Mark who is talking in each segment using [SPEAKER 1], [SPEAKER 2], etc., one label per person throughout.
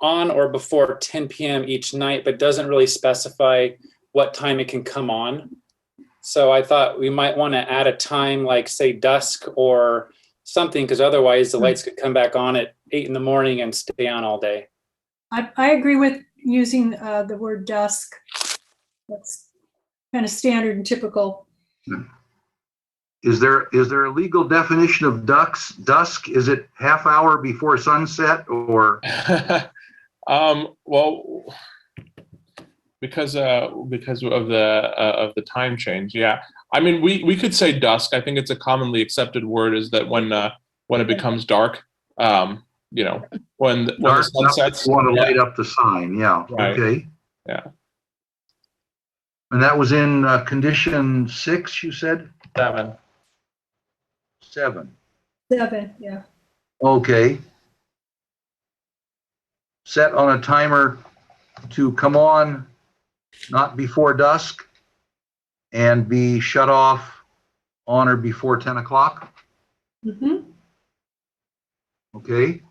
[SPEAKER 1] on or before 10 p.m. each night, but doesn't really specify what time it can come on. So I thought we might want to add a time like say dusk or something because otherwise the lights could come back on at eight in the morning and stay on all day.
[SPEAKER 2] I, I agree with using uh, the word dusk. That's kind of standard and typical.
[SPEAKER 3] Is there, is there a legal definition of ducks, dusk? Is it half hour before sunset or,
[SPEAKER 4] um, well, because uh, because of the uh, of the time change, yeah. I mean, we we could say dusk. I think it's a commonly accepted word is that when uh, when it becomes dark, um, you know, when when the
[SPEAKER 3] dark
[SPEAKER 4] sun sets.
[SPEAKER 3] want to
[SPEAKER 4] yeah.
[SPEAKER 3] light up the sign? Yeah,
[SPEAKER 4] Right.
[SPEAKER 3] okay.
[SPEAKER 4] Yeah.
[SPEAKER 3] And that was in uh, condition six, you said?
[SPEAKER 4] Seven.
[SPEAKER 3] Seven.
[SPEAKER 2] Seven, yeah.
[SPEAKER 3] Okay. Set on a timer to come on not before dusk and be shut off on or before 10 o'clock,
[SPEAKER 2] Mhm.
[SPEAKER 3] okay?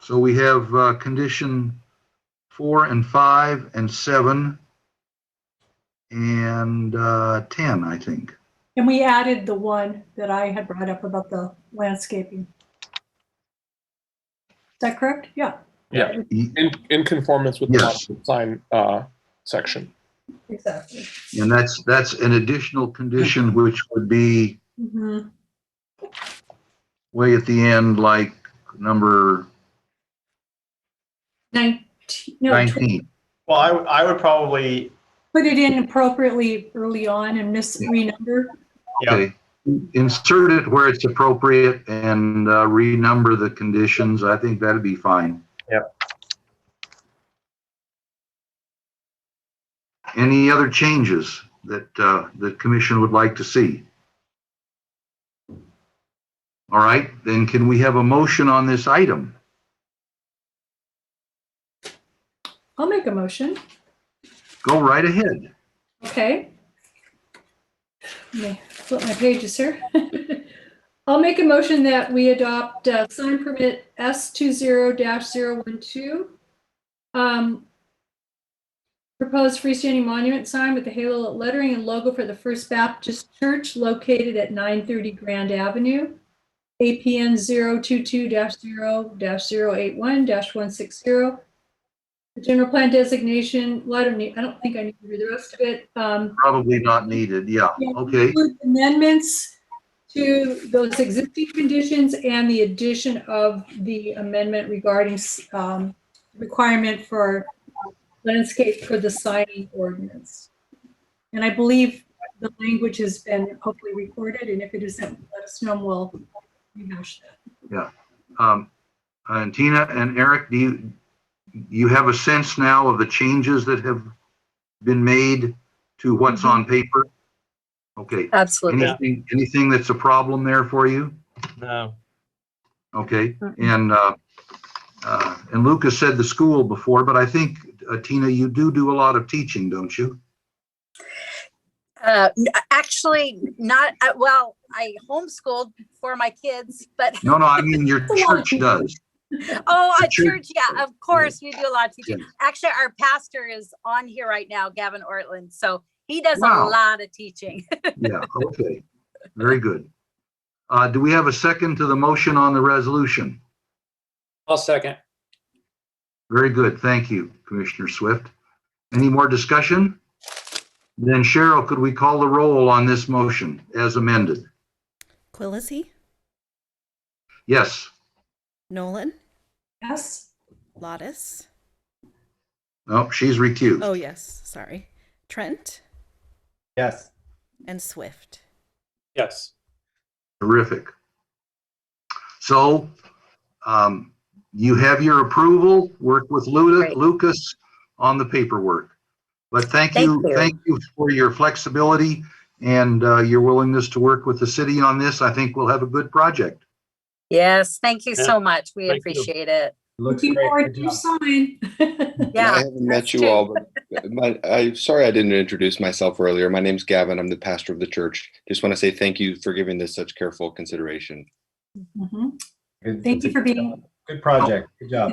[SPEAKER 3] So we have uh, condition four and five and seven and uh, 10, I think.
[SPEAKER 2] And we added the one that I had brought up about the landscaping. Is that correct? Yeah,
[SPEAKER 4] Yeah,
[SPEAKER 3] E-
[SPEAKER 4] in in conformance with
[SPEAKER 3] Yes.
[SPEAKER 4] the sign uh, section.
[SPEAKER 2] exactly.
[SPEAKER 3] And that's, that's an additional condition which would be
[SPEAKER 2] Mhm.
[SPEAKER 3] way at the end, like number
[SPEAKER 2] Nineteen, no, tw-
[SPEAKER 3] 19.
[SPEAKER 5] Well, I, w- I would probably,
[SPEAKER 2] put it in appropriately early on and miss renumber.
[SPEAKER 5] yeah.
[SPEAKER 3] Okay. Insert it where it's appropriate and uh, renumber the conditions. I think that'd be fine. Yep. Any other changes that uh, the commission would like to see? All right, then can we have a motion on this item?
[SPEAKER 2] I'll make a motion.
[SPEAKER 3] Go right ahead.
[SPEAKER 2] Okay. Let me flip my pages here. I'll make a motion that we adopt uh, sign permit S two zero dash zero one two. Um, Proposed freestanding monument sign with the halo lettering and logo for the First Baptist Church located at nine thirty Grand Avenue. APN 022-0-081-160. one six zero. The general plan designation, well, I don't need, I don't think I need to read the rest of it. Um,
[SPEAKER 3] Probably not needed, yeah,
[SPEAKER 2] Yeah.
[SPEAKER 3] okay.
[SPEAKER 2] include amendments to those existing conditions and the addition of the amendment regarding um, requirement for landscape for the signing ordinance. And I believe the language has been hopefully recorded, and if it isn't, let us know, and we'll rehash that.
[SPEAKER 3] Um, And Tina and Eric, do you, you have a sense now of the changes that have been made to what's on paper? Okay,
[SPEAKER 6] Absolutely.
[SPEAKER 3] anything, anything that's a problem there for you?
[SPEAKER 5] No.
[SPEAKER 3] Okay, and, uh, uh, and Lucas said the school before, but I think, uh, Tina, you do do a lot of teaching, don't you?
[SPEAKER 6] Uh, n- actually, not, uh, well, I homeschooled for my kids, but,
[SPEAKER 3] No, no, I mean, your church does.
[SPEAKER 6] oh,
[SPEAKER 3] The
[SPEAKER 6] a
[SPEAKER 3] church-
[SPEAKER 6] church, yeah, of course, we do a lot of teaching.
[SPEAKER 3] Yeah.
[SPEAKER 6] Actually, our pastor is on here right now, Gavin Ortland, so he does a
[SPEAKER 3] Wow.
[SPEAKER 6] lot of teaching.
[SPEAKER 3] Yeah, okay, very good. Uh, do we have a second to the motion on the resolution?
[SPEAKER 1] I'll second.
[SPEAKER 3] Very good. Thank you, Commissioner Swift. Any more discussion? Then Cheryl, could we call the roll on this motion as amended?
[SPEAKER 7] Quillisi,
[SPEAKER 3] Yes,
[SPEAKER 7] Nolan,
[SPEAKER 2] Yes?
[SPEAKER 7] Lottis.
[SPEAKER 3] no, she's recused.
[SPEAKER 7] Oh, yes, sorry. Trent
[SPEAKER 5] Yes.
[SPEAKER 7] and Swift.
[SPEAKER 1] Yes.
[SPEAKER 3] Terrific. So um, you have your approval, work with Luda-
[SPEAKER 6] Great.
[SPEAKER 3] Lucas on the paperwork. But thank
[SPEAKER 6] Thank
[SPEAKER 3] you,
[SPEAKER 6] you.
[SPEAKER 3] thank you for your flexibility and uh, your willingness to work with the city on this. I think we'll have a good project.
[SPEAKER 6] Yes, thank you
[SPEAKER 1] Yeah.
[SPEAKER 6] so much. We
[SPEAKER 1] Thank you.
[SPEAKER 6] appreciate it.
[SPEAKER 5] Looks
[SPEAKER 2] Looking
[SPEAKER 5] great.
[SPEAKER 2] forward
[SPEAKER 5] Good
[SPEAKER 2] to
[SPEAKER 5] job.
[SPEAKER 2] your sign.
[SPEAKER 6] Yeah.
[SPEAKER 8] I haven't
[SPEAKER 6] us
[SPEAKER 8] met
[SPEAKER 6] too.
[SPEAKER 8] you all, but my, I, sorry I didn't introduce myself earlier. My name's Gavin. I'm the pastor of the church. Just want to say thank you for giving this such careful consideration.
[SPEAKER 2] Mhm.
[SPEAKER 5] Good-
[SPEAKER 2] Thank you for being-
[SPEAKER 5] Good project. Good job.